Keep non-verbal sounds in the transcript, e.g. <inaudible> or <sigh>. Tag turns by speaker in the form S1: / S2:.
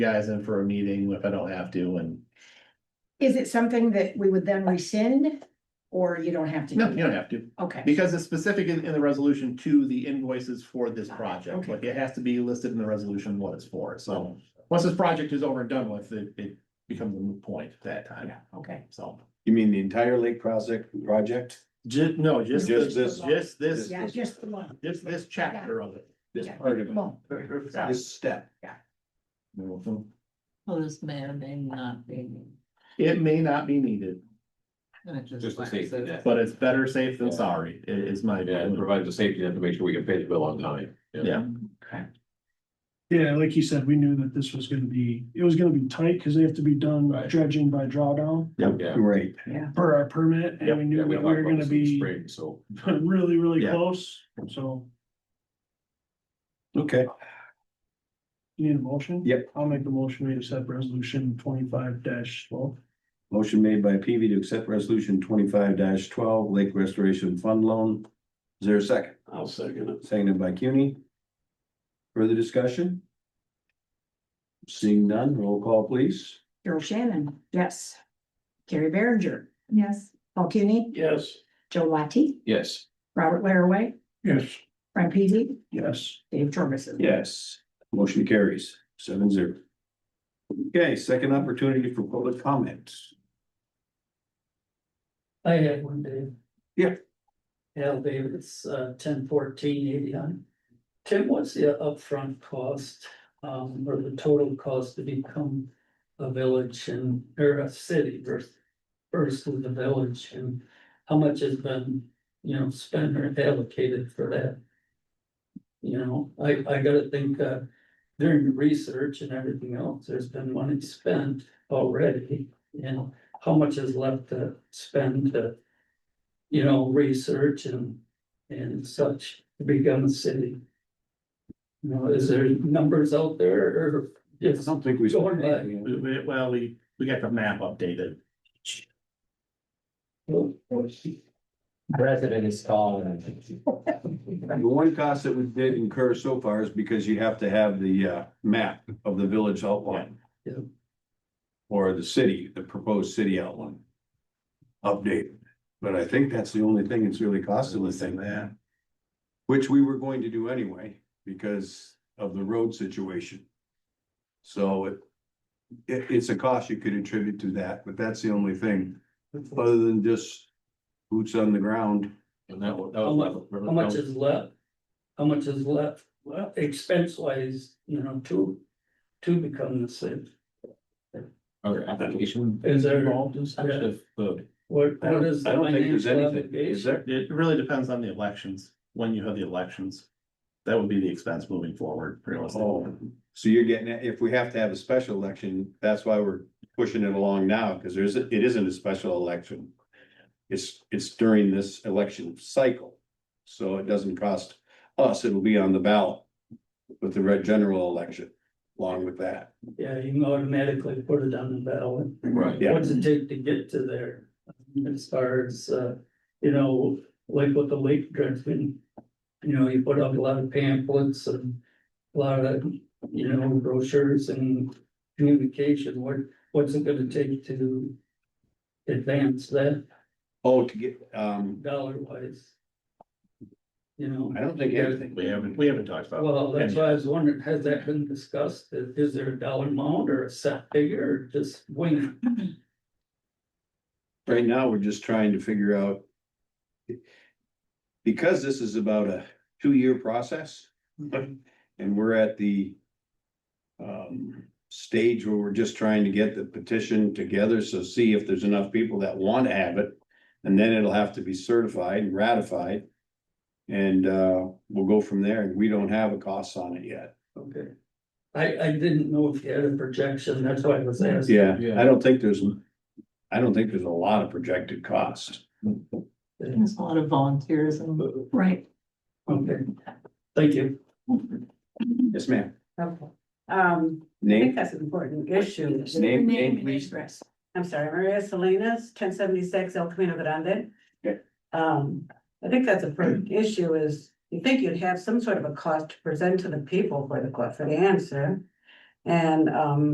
S1: guys in for a meeting if I don't have to and,
S2: Is it something that we would then rescind? Or you don't have to? do
S1: no, you don't
S2: that?
S1: have to.
S2: Okay,
S1: Because it's specific in, in the resolution to the invoices for this project,
S2: Okay.
S1: like it has to be listed in the resolution what it's for, so. Once this project is over and done with, it, it becomes a moot point at that time,
S2: yeah, okay.
S1: so.
S3: You mean the entire lake project, project?
S1: Just, no, just
S3: Just
S1: this,
S3: this-
S1: just this,
S2: Yeah, just the one.
S1: just this chapter of it.
S3: This
S2: Yeah.
S3: part of it,
S2: Well,
S1: Yeah.
S3: this step.
S4: Well, this may or may not be.
S1: It may not be needed,
S4: and it
S5: Just a
S4: like I
S5: safety
S4: said,
S5: net.
S1: but it's better safe than sorry, i- is my.
S5: Yeah, and
S1: opinion.
S5: provide the safety net to make sure we can pay the bill on time.
S1: Yeah.
S6: Yeah, like you said, we knew that this was gonna be, it was gonna be tight, because they have to be done
S5: Right.
S6: dredging by drawdown
S5: Yeah.
S3: Right.
S6: per our permit, and we
S5: Yeah, we
S6: knew that
S5: talked
S6: we were
S5: about
S6: gonna
S5: this in the
S6: be
S5: spring, so.
S6: <laughs> really, really
S1: Yeah.
S6: close, so
S3: Okay,
S6: you need a motion?
S3: Yep.
S6: I'll make the motion, we accept resolution twenty-five twelve.
S3: motion made by PV to accept resolution twenty-five twelve, Lake Restoration Fund Loan. Is there a second?
S5: I'll second it.
S3: Seconded by CUNY. Further discussion? Seeing none, roll call please.
S2: Cheryl Shannon, yes. Carrie Behringer,
S7: Yes.
S2: Paul Cuny,
S5: Yes.
S2: Joe Latte,
S5: Yes.
S2: Robert Laraway,
S6: Yes.
S2: Frank Peavy,
S6: Yes.
S2: Dave Torgerson.
S3: Yes. Motion carries seven zero. Okay, second opportunity for public comments.
S8: I had one, Dave.
S3: Yeah.
S8: Yeah, Dave, it's uh ten fourteen eighty-nine. Tim, what's the upfront cost, um, or the total cost to become a village and, or a city versus versus the village and how much has been, you know, spent or allocated for that? You know, I, I gotta think, uh, during the research and everything else, there's been money spent already, you know how much is left to spend to, you know, research and, and such to become a city? You know, is there numbers out there or
S3: I
S8: just
S3: don't think we.
S8: Go on, bud.
S1: We- we- Well, we, we got the map updated.
S9: President is calling.
S3: The one cost that we did incur so far is because you have to have the uh map of the village outline.
S8: Yeah.
S3: Or the city, the proposed city outline. Updated, but I think that's the only thing that's really costing us in that. Which we were going to do anyway, because of the road situation. So it. It it's a cost you could attribute to that, but that's the only thing, other than just boots on the ground.
S5: And that was, that
S8: how
S5: was.
S8: much, how much is left? How much is left, well, expense wise, you know, to, to become the city?
S5: Our application.
S8: Is there-
S5: Involved in such
S8: Yeah.
S5: if the,
S8: What,
S3: I
S8: what
S3: don't,
S8: is?
S3: I
S8: the
S3: don't think there's
S8: financial
S3: anything, is
S8: obligation?
S3: there?
S1: It really depends on the elections, when you have the elections. That would be the expense moving forward, pretty much.
S3: Oh, so you're getting, it- if we have to have a special election, that's why we're pushing it along now, because there isn't, it isn't a special election. It's, it's during this election cycle, so it doesn't cost us, it'll be on the ballot with the red general election, along with that.
S8: Yeah, you can automatically put it on the ballot.
S5: right,
S3: Yeah.
S8: What's it take to get to there? As far as, uh, you know, like with the lake dredging. You know, you put up a lot of pamphlets and a lot of, you know, brochures and communication. What, what's it gonna take to advance that
S3: Oh, to get, um,
S8: dollar wise? You know,
S3: I don't think everything,
S1: We haven't, we haven't talked about.
S8: well, that's why I was wondering, has that been discussed? Is is there a dollar amount or a set figure or just wing? it?
S3: right now, we're just trying to figure out. Because this is about a two-year process. And we're at the. Um, stage where we're just trying to get the petition together, so see if there's enough people that want to have it. And then it'll have to be certified and ratified. And uh, we'll go from there, and we don't have a cost on it yet.
S8: Okay. I, I didn't know if you had a projection, that's why I was asking.
S3: Yeah, I
S5: Yeah.
S3: don't think there's. I don't think there's a lot of projected cost.
S4: There's a lot of volunteers and
S2: Right.
S8: Okay, thank you.
S3: Yes, ma'am.
S7: Okay, um, I
S3: Name?
S7: think that's an important issue.
S3: Name, name, please.
S2: address.
S7: I'm sorry, Maria Salinas, ten seventy-six El Camino Grande.
S3: Okay.
S7: Um, I think that's a pertinent issue is, you think you'd have some sort of a cost to present to the people for the, for the answer. And, um,